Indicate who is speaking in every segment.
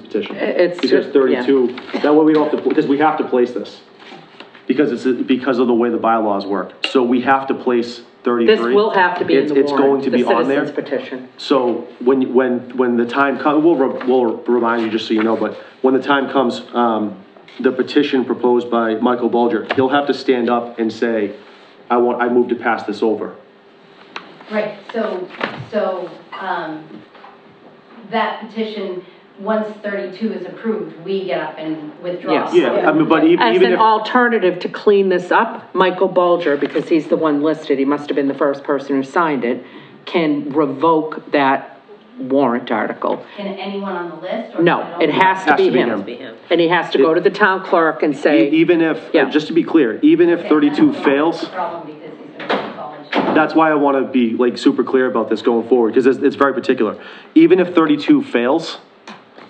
Speaker 1: petition.
Speaker 2: It's
Speaker 1: He says
Speaker 2: just- yeah.
Speaker 1: thirty-two, that way we don't have to, because we have to place this, because it's, because of the way the bylaws work. So we have to place thirty-three.
Speaker 2: This will have to be in
Speaker 1: It's-
Speaker 2: the
Speaker 1: It's going
Speaker 2: warrant,
Speaker 1: to
Speaker 2: the
Speaker 1: be on there.
Speaker 2: citizens petition.
Speaker 1: So when, when, when the time comes, we'll, re- we'll remind you just so you know, but when the time comes, um, the petition proposed by Michael Bulger, he'll have to stand up and say, I want, I move to pass this over.
Speaker 3: Right, so, so, um, that petition, once thirty-two is approved, we get up and withdraw.
Speaker 2: Yes.
Speaker 1: Yeah, I mean, but even,
Speaker 2: As
Speaker 1: even
Speaker 2: an
Speaker 1: if,
Speaker 2: alternative to clean this up, Michael Bulger, because he's the one listed, he must have been the first person who signed it, can revoke that warrant article.
Speaker 3: Can anyone on the list? or can
Speaker 2: No,
Speaker 3: only-
Speaker 2: it has to be him. And he has to go to the town clerk and
Speaker 1: e-
Speaker 2: say,
Speaker 1: even if,
Speaker 2: Yeah.
Speaker 1: just to be clear, even if
Speaker 3: Okay,
Speaker 1: thirty-two
Speaker 3: that's the
Speaker 1: fails,
Speaker 3: Problem because he's gonna be in college.
Speaker 1: that's why I want to be like super clear about this going forward, because it's, it's very particular. Even if 32 fails,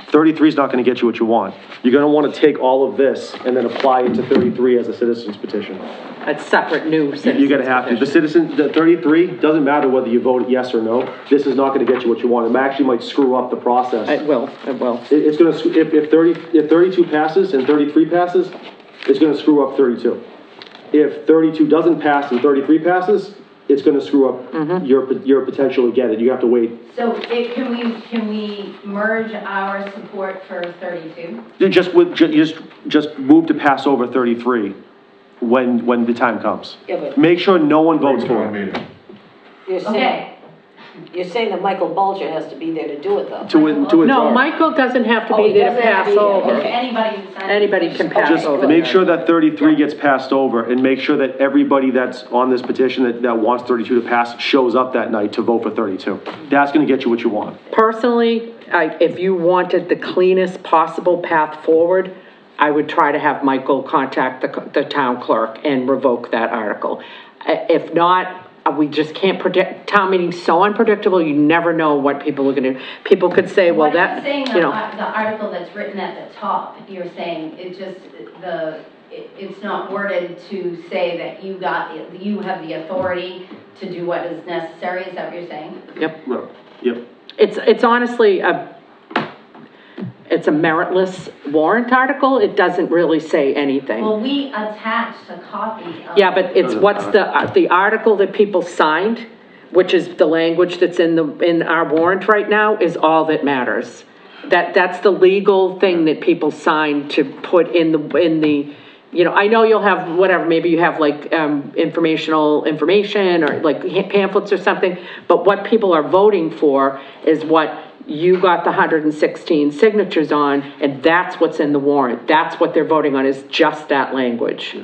Speaker 1: 33 is not going to get you what you want. You're going to want to take all of this and then apply it to 33 as a citizen's petition.
Speaker 2: a separate new citizen's
Speaker 1: You're going to have to, the
Speaker 2: petition."
Speaker 1: citizen, the 33, doesn't matter whether you vote yes or no, this is not going to get you what you want. It actually might screw up the process.
Speaker 2: It will, it will.
Speaker 1: It- It's going to, if, if 30, if 32 passes and 33 passes, it's going to screw up 32. If 32 doesn't pass and 33 passes, it's going to screw up your, pot- your potential to get it. You have to wait.
Speaker 3: So it, can we, can we merge our support for thirty-two?
Speaker 1: You Just with, ju- you just, just move to pass over 33 when, when the time comes.
Speaker 4: Yeah, but-
Speaker 1: Make sure no one votes for it.
Speaker 5: meeting.
Speaker 4: You're saying,
Speaker 3: Okay,
Speaker 4: you're saying that Michael Bulger has to be there to do it, though?
Speaker 1: To, win- to
Speaker 2: No,
Speaker 1: withdraw.
Speaker 2: Michael doesn't have to
Speaker 4: Oh,
Speaker 2: be
Speaker 4: he
Speaker 2: there to
Speaker 4: doesn't
Speaker 2: pass
Speaker 4: have to be there,
Speaker 2: over.
Speaker 4: okay.
Speaker 3: anybody who signs.
Speaker 2: Anybody can pass
Speaker 4: Just
Speaker 2: over.
Speaker 1: Make sure that 33 gets passed over and make sure that everybody that's on this petition that, that wants 32 to pass shows up that night to vote for 32. That's going to get you what you want.
Speaker 2: Personally, I, if you wanted the cleanest possible path forward, I would try to have Michael contact the, c- the town clerk and revoke that article. I- If not, uh, we just can't predict, town meeting's so unpredictable, you never know what people are gonna, people could say, well,
Speaker 3: What you're
Speaker 2: that,
Speaker 3: saying,
Speaker 2: you
Speaker 3: the,
Speaker 2: know.
Speaker 3: ar- the article that's written at the top, you're saying it just, the, it, it's not worded to say that you got, the- you have the authority to do what is necessary, is that what you're saying?
Speaker 2: Yep.
Speaker 1: Yep.
Speaker 2: It's, it's honestly a, it's a meritless warrant article, it doesn't really say anything.
Speaker 3: Well, we attached a copy of.
Speaker 2: Yeah, but it's
Speaker 1: Doesn't
Speaker 2: what's
Speaker 1: matter.
Speaker 2: the, uh, the article that people signed, which is the language that's in the, in our warrant right now, is all that matters. That, that's the legal thing that people sign to put in the, in the, you know, I know you'll have whatever, maybe you have like, um, informational information or like pamphlets or something, but what people are voting for is what you got the 116 signatures on, and that's what's in the warrant. That's what they're voting on, is just that language.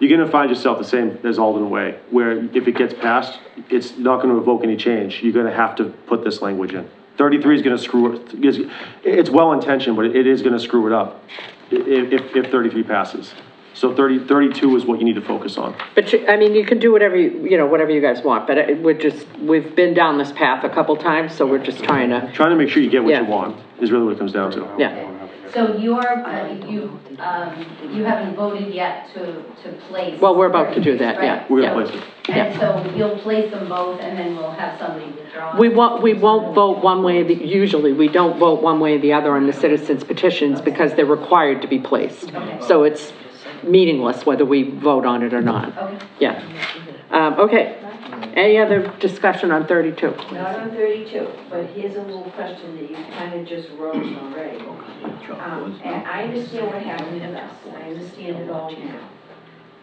Speaker 1: You're going to find yourself the same as Alden Way, where if it gets passed, it's not going to evoke any change. You're going to have to put this language in. 33 is going to screw, it- is- it's well-intentioned, but it is going to screw it up i- if, if 33 passes. So 30, 32 is what you need to focus on.
Speaker 2: But you, I mean, you can do whatever, you you know, whatever you guys want, but it, we're just, we've been down this path a couple times, so we're just trying to,
Speaker 1: Trying to make sure you get what
Speaker 2: Yeah.
Speaker 1: you want is really what it comes down to.
Speaker 2: yeah.
Speaker 3: So you're, uh, you, um, you haven't voted yet to, to place.
Speaker 2: Well, we're about to do that, yeah.
Speaker 3: Right.
Speaker 1: We're
Speaker 2: yeah.
Speaker 1: going to place it.
Speaker 3: And so you'll place them both and then we'll have somebody withdraw.
Speaker 2: We won't, we won't vote one way, or the- usually, we don't vote one way or the other on the citizens petitions because they're required to be placed. So it's meaningless whether we vote on it or not,
Speaker 3: Okay.
Speaker 2: yeah. Um, okay, any other discussion on thirty-two?
Speaker 6: Not on 32, but here's a little question that you kind of just rose already. Um, And I understand what happened to us, I understand it all now.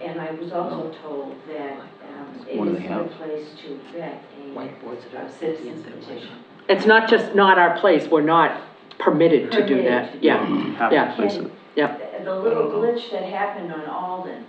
Speaker 6: And I was also told that um, it
Speaker 7: What do they
Speaker 6: is no
Speaker 7: have?
Speaker 6: place to vet
Speaker 4: Whiteboards
Speaker 6: a
Speaker 4: that
Speaker 6: uh,
Speaker 4: are-
Speaker 6: citizen's petition.
Speaker 2: It's not just not our place, we're not permitted to do that,
Speaker 6: Permitted.
Speaker 2: yeah,
Speaker 1: Have
Speaker 2: Yeah.
Speaker 1: to place it.
Speaker 2: yeah.
Speaker 6: The- The little
Speaker 7: Uh-huh.
Speaker 6: glitch that happened on Alden,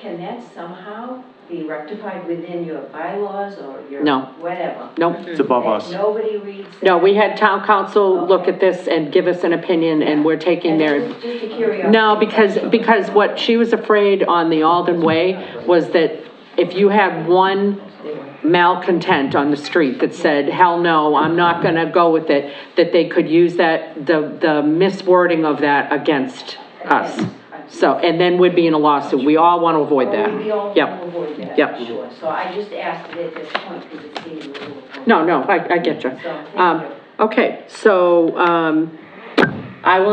Speaker 6: can that somehow be rectified within your bylaws or your
Speaker 2: No.
Speaker 6: whatever?
Speaker 2: Nope.
Speaker 1: It's above
Speaker 6: That
Speaker 1: us.
Speaker 6: Nobody reads that?
Speaker 2: No, we had town council look at this and give us an opinion, and we're taking
Speaker 6: And
Speaker 2: their,
Speaker 6: Just just a curiosity.
Speaker 2: no, because, because what she was afraid on the Alden Way was that if you had one malcontent on the street that said, hell no, I'm not gonna go with it, that they could use that, the, the miswording of that against us. So, and then we'd be in a lawsuit, we all wanna avoid
Speaker 6: Well, We all
Speaker 2: that.
Speaker 6: can
Speaker 2: Yep,
Speaker 6: avoid that,
Speaker 2: Yep.
Speaker 6: I'm sure. So I just asked it at this point because it seemed a little.
Speaker 2: no, no, I, I get you.
Speaker 6: So, thank
Speaker 2: Um,
Speaker 6: you.
Speaker 2: Okay, so, um, I will